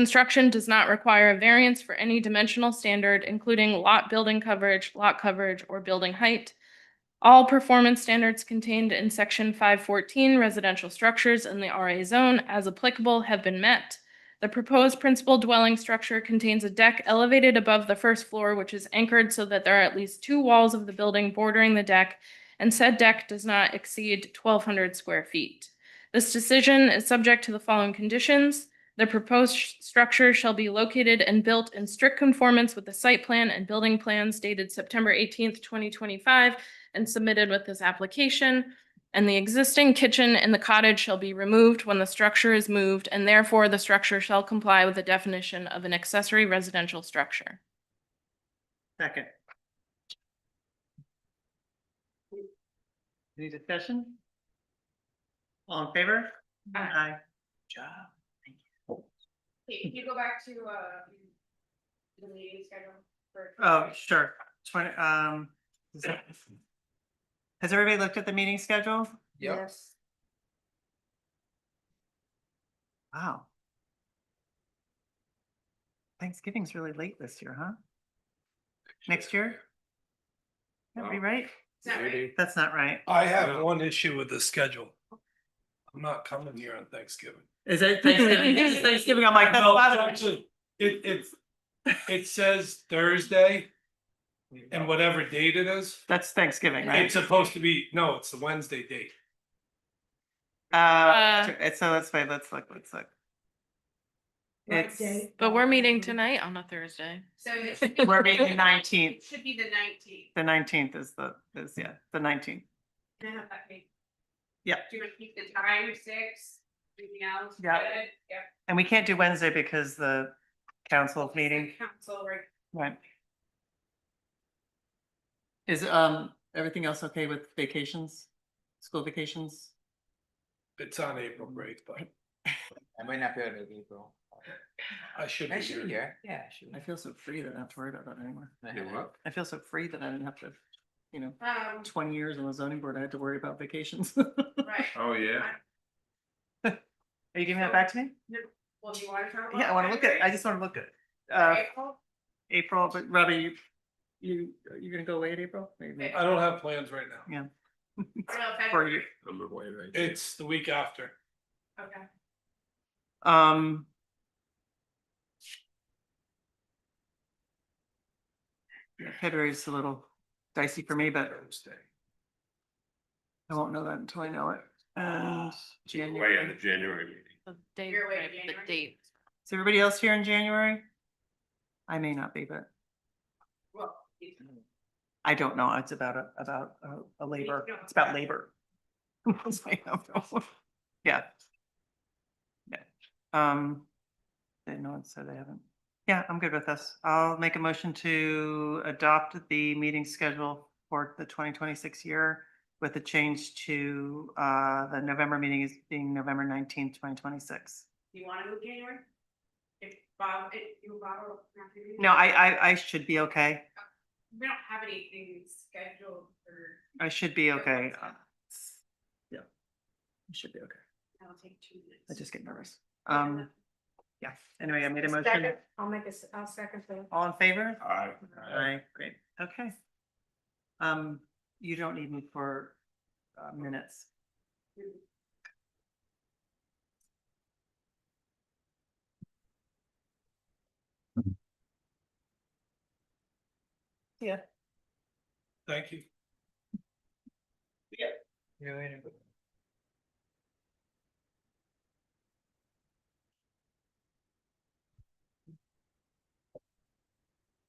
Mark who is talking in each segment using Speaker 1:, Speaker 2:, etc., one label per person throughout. Speaker 1: Construction does not require a variance for any dimensional standard, including lot building coverage, lot coverage, or building height. All performance standards contained in section five fourteen residential structures in the RA zone as applicable have been met. The proposed principal dwelling structure contains a deck elevated above the first floor, which is anchored so that there are at least two walls of the building bordering the deck, and said deck does not exceed twelve hundred square feet. This decision is subject to the following conditions. The proposed sh- structure shall be located and built in strict conformance with the site plan and building plans dated September eighteenth, twenty twenty-five and submitted with this application. And the existing kitchen in the cottage shall be removed when the structure is moved, and therefore the structure shall comply with the definition of an accessory residential structure.
Speaker 2: Second. Any discussion? All in favor?
Speaker 1: Aye.
Speaker 2: Good Job.
Speaker 3: Can you go back to, uh, the meeting schedule for?
Speaker 2: Oh, sure. Twenty, um. is that- Has everybody looked at the meeting schedule?
Speaker 4: Yep.
Speaker 3: Yes.
Speaker 2: Wow. Thanksgiving's really late this year, huh? Next year? That'd be
Speaker 4: Wow.
Speaker 2: right.
Speaker 3: Is that right?
Speaker 4: Maybe.
Speaker 2: That's not right.
Speaker 5: I have
Speaker 4: Yeah.
Speaker 5: one issue with the schedule. I'm not coming here on Thanksgiving.
Speaker 2: Is it Thanksgiving? It is Thanksgiving. I'm like, that's
Speaker 5: No,
Speaker 2: Father's-
Speaker 5: actually, It, it's, it says Thursday and whatever date it is,
Speaker 2: that's Thanksgiving,
Speaker 5: it's
Speaker 2: right?
Speaker 5: supposed to be, no, it's the Wednesday date.
Speaker 2: Uh,
Speaker 1: Uh,
Speaker 2: it's- so let's wait, let's look, let's look. It's,
Speaker 1: But we're meeting tonight on a Thursday.
Speaker 3: So it should be.
Speaker 2: we're meeting
Speaker 3: It
Speaker 2: nineteenth,
Speaker 3: should be the nineteenth.
Speaker 2: the nineteenth is the, is, yeah, the nineteenth.
Speaker 3: Can I have that page?
Speaker 2: Yeah.
Speaker 3: Do you want to keep the time six, anything else?
Speaker 2: Yeah.
Speaker 3: Good. Yeah.
Speaker 2: And we can't do Wednesday because the council meeting,
Speaker 3: Council, right?
Speaker 2: right? Is, um, everything else okay with vacations, school vacations?
Speaker 5: It's on April break, but
Speaker 4: I might not be able to make April.
Speaker 5: I should be
Speaker 4: I should be
Speaker 5: here.
Speaker 4: here, yeah.
Speaker 2: I feel so free that I don't have to worry about that anymore.
Speaker 4: You what?
Speaker 2: I feel so free that I didn't have to, you know,
Speaker 3: Um,
Speaker 2: twenty years on the zoning board, I had to worry about vacations.
Speaker 3: right.
Speaker 4: Oh, yeah.
Speaker 2: Are you giving that back to me?
Speaker 3: Well, do you want to talk about?
Speaker 2: Yeah, I wanna look at, it. I
Speaker 3: February?
Speaker 2: just wanna look at, it. uh,
Speaker 3: April?
Speaker 2: April, but Robbie, you, you, you're gonna go away in April? Maybe.
Speaker 5: I don't have plans right now.
Speaker 3: Or no,
Speaker 2: For
Speaker 3: February?
Speaker 2: you,
Speaker 4: I'm away right
Speaker 5: It's the week after.
Speaker 3: Okay.
Speaker 2: um. February's a little dicey for me, but
Speaker 5: Thursday.
Speaker 2: I won't know that until I know it. Uh,
Speaker 4: Way in the
Speaker 2: January.
Speaker 4: January meeting.
Speaker 1: The date,
Speaker 3: You're away
Speaker 1: right, the
Speaker 3: January?
Speaker 1: date.
Speaker 2: Is everybody else here in January? I may not be, but
Speaker 3: Well, you-
Speaker 2: I don't know. It's about, a about a- a labor,
Speaker 3: don't
Speaker 2: it's about
Speaker 3: know.
Speaker 2: labor. I don't know. Yeah. Yeah, um, they know, it, so they haven't. Yeah, I'm good with this. I'll make a motion to adopt the meeting schedule for the twenty twenty-six year with a change to, uh, the November meeting is being November nineteenth, twenty twenty-six.
Speaker 3: you want to move January? If Bob, if you, Bob, or Matthew?
Speaker 2: No, I, I, I should be okay.
Speaker 3: We don't have anything scheduled for.
Speaker 2: I should be
Speaker 3: for
Speaker 2: okay.
Speaker 3: WhatsApp.
Speaker 2: Yeah. I should be okay.
Speaker 3: That'll take two minutes.
Speaker 2: I just get nervous.
Speaker 3: Yeah.
Speaker 2: Um, yeah, anyway, I made a motion.
Speaker 3: I'll make a, I'll second that.
Speaker 2: All in favor?
Speaker 4: Alright.
Speaker 2: Aye, great, okay. Um, you don't need me for uh, minutes. Yeah.
Speaker 5: Thank you.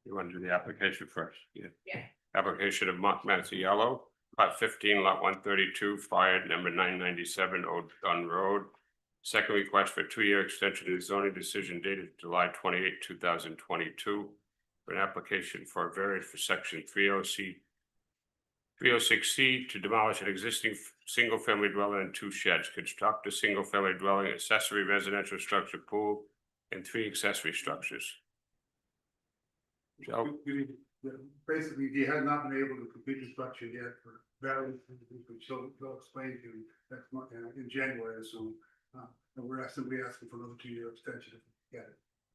Speaker 6: You want to do the application first? Yeah.
Speaker 3: Yeah.
Speaker 6: Application of Mark Mazziello, lot fifteen, lot one thirty-two, fire number nine ninety-seven, Old Dunn Road. Second request for two-year extension of the zoning decision dated July twenty-eight, two thousand twenty-two. For an application for a variance for section three O C three oh six C to demolish an existing f- single-family dwelling and two sheds, construct a single-family dwelling, accessory residential structure pool, and three accessory structures. Joe?
Speaker 7: We- we- Basically, he had not been able to complete his structure yet for various reasons, which he'll, he'll explain to you next month, uh, in January, so. Uh, and we're asking, we asking for another two year extension if we get it.